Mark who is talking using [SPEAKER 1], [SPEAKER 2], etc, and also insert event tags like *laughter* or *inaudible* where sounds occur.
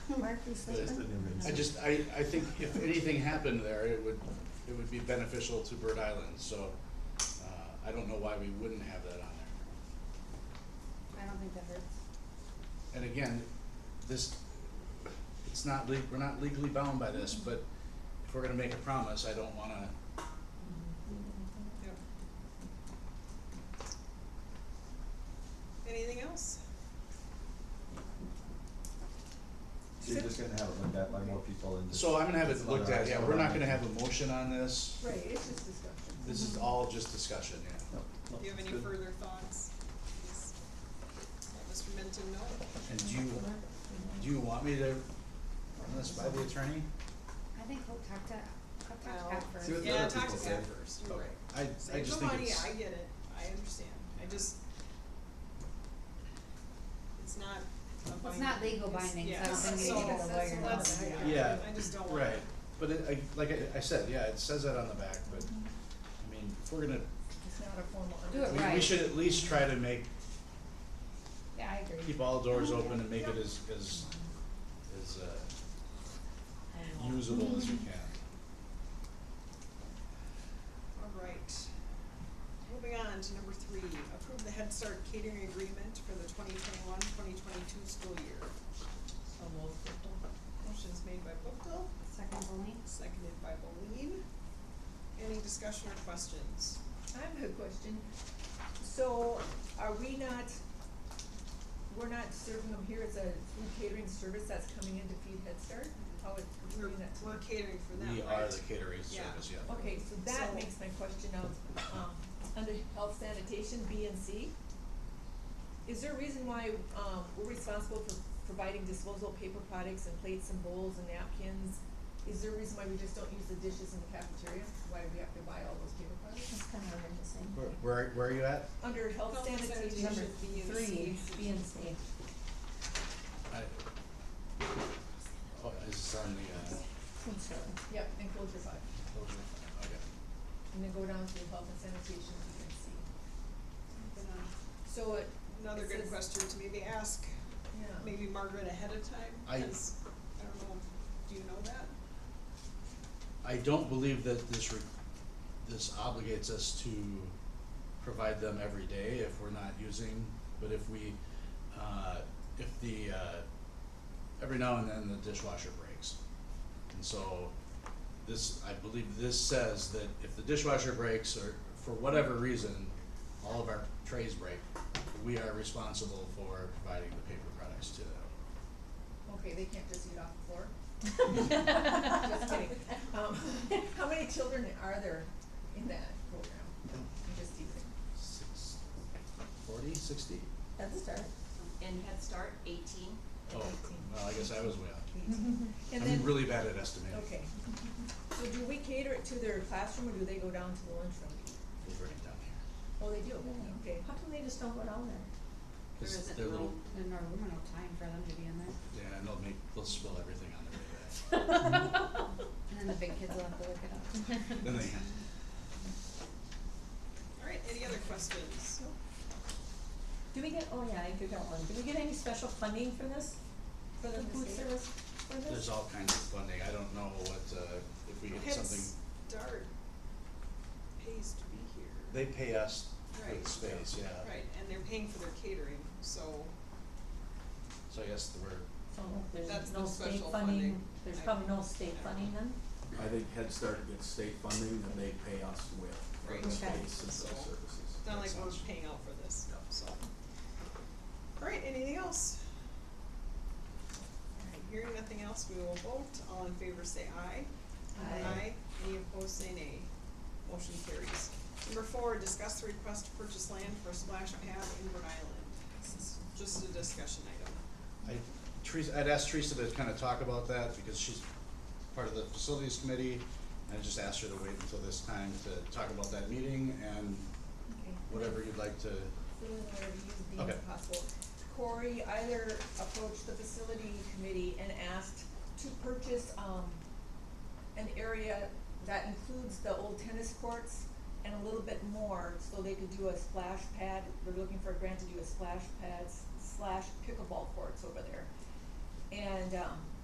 [SPEAKER 1] Mark this
[SPEAKER 2] But it's the
[SPEAKER 1] over.
[SPEAKER 2] new
[SPEAKER 3] I just, I, I think if anything happened there, it would, it would be beneficial to Bird Island, so, uh, I don't know why we wouldn't have that on there.
[SPEAKER 1] I don't think that hurts.
[SPEAKER 3] And again, this, it's not le- we're not legally bound by this, but if we're gonna make a promise, I don't wanna,
[SPEAKER 4] Yep. Anything else?
[SPEAKER 2] So you're just gonna have it looked at by more people and just.
[SPEAKER 3] so I'm gonna have it looked at, yeah, we're not gonna have a motion on this,
[SPEAKER 5] Right, it's just discussion.
[SPEAKER 3] this is all just discussion, yeah.
[SPEAKER 2] No, no,
[SPEAKER 4] Do you have
[SPEAKER 2] it's
[SPEAKER 4] any
[SPEAKER 2] good.
[SPEAKER 4] further thoughts? Please Let Mr. Minton know.
[SPEAKER 3] And do you, do you want me to run this by the attorney?
[SPEAKER 1] I think we'll talk to, talk
[SPEAKER 4] Well,
[SPEAKER 1] to Pat first.
[SPEAKER 2] See what the
[SPEAKER 4] Yeah,
[SPEAKER 2] other
[SPEAKER 4] talk to
[SPEAKER 2] people
[SPEAKER 4] Pat
[SPEAKER 2] say.
[SPEAKER 4] first, you're right.
[SPEAKER 3] I, I
[SPEAKER 4] Save
[SPEAKER 3] just
[SPEAKER 4] the
[SPEAKER 3] think
[SPEAKER 4] money,
[SPEAKER 3] it's,
[SPEAKER 4] I get it, I understand, I just, it's not a binding.
[SPEAKER 1] It's not legal
[SPEAKER 4] it's-
[SPEAKER 1] binding, so I
[SPEAKER 4] yeah,
[SPEAKER 1] don't think we
[SPEAKER 4] so
[SPEAKER 1] need to get a lawyer.
[SPEAKER 4] let's-
[SPEAKER 1] involved.
[SPEAKER 3] yeah,
[SPEAKER 4] I just don't want.
[SPEAKER 3] right, but it, I, like I, I said, yeah, it says that on the back, but, I mean, if we're gonna,
[SPEAKER 5] It's not a formal.
[SPEAKER 1] Do it
[SPEAKER 3] we, we
[SPEAKER 1] right.
[SPEAKER 3] should at least try to make,
[SPEAKER 5] Oh, Yeah, I agree.
[SPEAKER 3] keep all doors open and make it as, as, as, uh, usable as we can.
[SPEAKER 4] All right. Moving on to number three, approve the Head Start catering agreement for the 2021-2022 school year. So moved, Buchtel. Motion's made by Buchtel,
[SPEAKER 1] Second only.
[SPEAKER 4] seconded by Boleen. Any discussion or questions?
[SPEAKER 5] I have a question. So are we not, we're not serving them here as a food catering service that's coming in to feed Head Start? How is, we're
[SPEAKER 4] We're,
[SPEAKER 5] doing that?
[SPEAKER 4] we're catering for them,
[SPEAKER 3] We
[SPEAKER 4] right?
[SPEAKER 3] are the catering
[SPEAKER 4] Yeah.
[SPEAKER 3] service, yeah.
[SPEAKER 5] Okay, so that
[SPEAKER 4] So-
[SPEAKER 5] makes my question of, um, under health sanitation, B and C. Is there a reason why, um, we're responsible for providing disposable paper products and plates and bowls and napkins? Is there a reason why we just don't use the dishes in the cafeteria? Why we have to buy all those paper products?
[SPEAKER 1] That's kind of embarrassing.
[SPEAKER 3] Where, where, where are you at?
[SPEAKER 5] Under health
[SPEAKER 4] Health
[SPEAKER 5] sanitation.
[SPEAKER 4] sanitation.
[SPEAKER 1] Number
[SPEAKER 4] B and
[SPEAKER 1] three,
[SPEAKER 4] C.
[SPEAKER 1] B and C.
[SPEAKER 3] I, oh, is this on the, uh,
[SPEAKER 5] Yep, and close your five.
[SPEAKER 3] closure? Okay.
[SPEAKER 5] And then go down to health and sanitation, B and C.
[SPEAKER 4] Uh,
[SPEAKER 5] So it.
[SPEAKER 4] Another
[SPEAKER 5] it
[SPEAKER 4] good
[SPEAKER 5] says-
[SPEAKER 4] question to maybe ask,
[SPEAKER 5] Yeah.
[SPEAKER 4] maybe Margaret ahead of time,
[SPEAKER 3] I-
[SPEAKER 4] 'cause I don't know, do you know that?
[SPEAKER 3] I don't believe that this re- this obligates us to provide them every day if we're not using, but if we, uh, if the, uh, every now and then the dishwasher breaks. And so this, I believe this says that if the dishwasher breaks or for whatever reason, all of our trays break, we are responsible for providing the paper products to them.
[SPEAKER 5] Okay, they can't just eat off the floor? *laughs* Just kidding. Um, *laughs* how many children are there in that program? I'm just teasing.
[SPEAKER 3] Six, forty, sixty?
[SPEAKER 6] Head Start. And Head Start, eighteen.
[SPEAKER 3] Oh, well, I guess I was way off.
[SPEAKER 5] And
[SPEAKER 3] I'm
[SPEAKER 5] then,
[SPEAKER 3] really bad at estimating.
[SPEAKER 5] okay. So do we cater it to their classroom or do they go down to the lunchroom?
[SPEAKER 3] We'll bring it down here.
[SPEAKER 5] Oh, they do,
[SPEAKER 6] Yeah.
[SPEAKER 5] okay.
[SPEAKER 6] How come they just don't go down there?
[SPEAKER 3] This-
[SPEAKER 6] There isn't
[SPEAKER 3] they're
[SPEAKER 6] room.
[SPEAKER 3] little-
[SPEAKER 1] And there were no time for them to be in there.
[SPEAKER 3] Yeah, and they'll make, they'll spill everything on their way back.
[SPEAKER 1] *laughs*
[SPEAKER 5] *laughs*
[SPEAKER 1] And then the big kids will have to look it up.
[SPEAKER 3] Then they,
[SPEAKER 4] All right, any other questions?
[SPEAKER 6] Do we get, oh yeah, I do got one. Do we get any special funding for this? For the food
[SPEAKER 5] state?
[SPEAKER 6] service for this?
[SPEAKER 3] there's all kinds of funding. I don't know what, uh, if we get
[SPEAKER 4] Head
[SPEAKER 3] something,
[SPEAKER 4] Start pays to be here.
[SPEAKER 3] they pay us for
[SPEAKER 4] Right.
[SPEAKER 3] the space, yeah.
[SPEAKER 4] Right, and they're paying for their catering, so
[SPEAKER 3] So I guess the word,
[SPEAKER 6] So
[SPEAKER 4] That's
[SPEAKER 6] there's
[SPEAKER 4] no
[SPEAKER 6] no state
[SPEAKER 4] special
[SPEAKER 6] funding,
[SPEAKER 4] funding.
[SPEAKER 6] there's
[SPEAKER 4] I-
[SPEAKER 6] probably no
[SPEAKER 4] I
[SPEAKER 6] state
[SPEAKER 4] don't
[SPEAKER 6] funding
[SPEAKER 4] know.
[SPEAKER 6] then?
[SPEAKER 7] I think Head Start gets state funding that they pay us with for
[SPEAKER 4] Right.
[SPEAKER 7] the space
[SPEAKER 6] Okay.
[SPEAKER 7] and those
[SPEAKER 4] So-
[SPEAKER 7] services.
[SPEAKER 4] it's not like
[SPEAKER 3] Makes
[SPEAKER 4] we're
[SPEAKER 3] sense.
[SPEAKER 4] paying out for this, so. All right, anything else? All right, hearing nothing else, we will vote. All in favor say aye.
[SPEAKER 5] Aye.
[SPEAKER 4] Any opposed say nay. Motion carries. Number four, discuss the request to purchase land for splash pad in Rhode Island. This is just a discussion item.
[SPEAKER 3] I, Teresa, I'd asked Teresa to kind of talk about that because she's part of the facilities committee. And I just asked her to wait until this time to talk about that meeting and
[SPEAKER 5] Okay.
[SPEAKER 3] whatever you'd like to,
[SPEAKER 5] Fill in whatever you deem
[SPEAKER 3] Okay.
[SPEAKER 5] possible. Corey either approached the facility committee and asked to purchase, um, an area that includes the old tennis courts and a little bit more, so they could do a splash pad, they're looking for a grant to do a splash pads slash pickleball courts over there. And, um,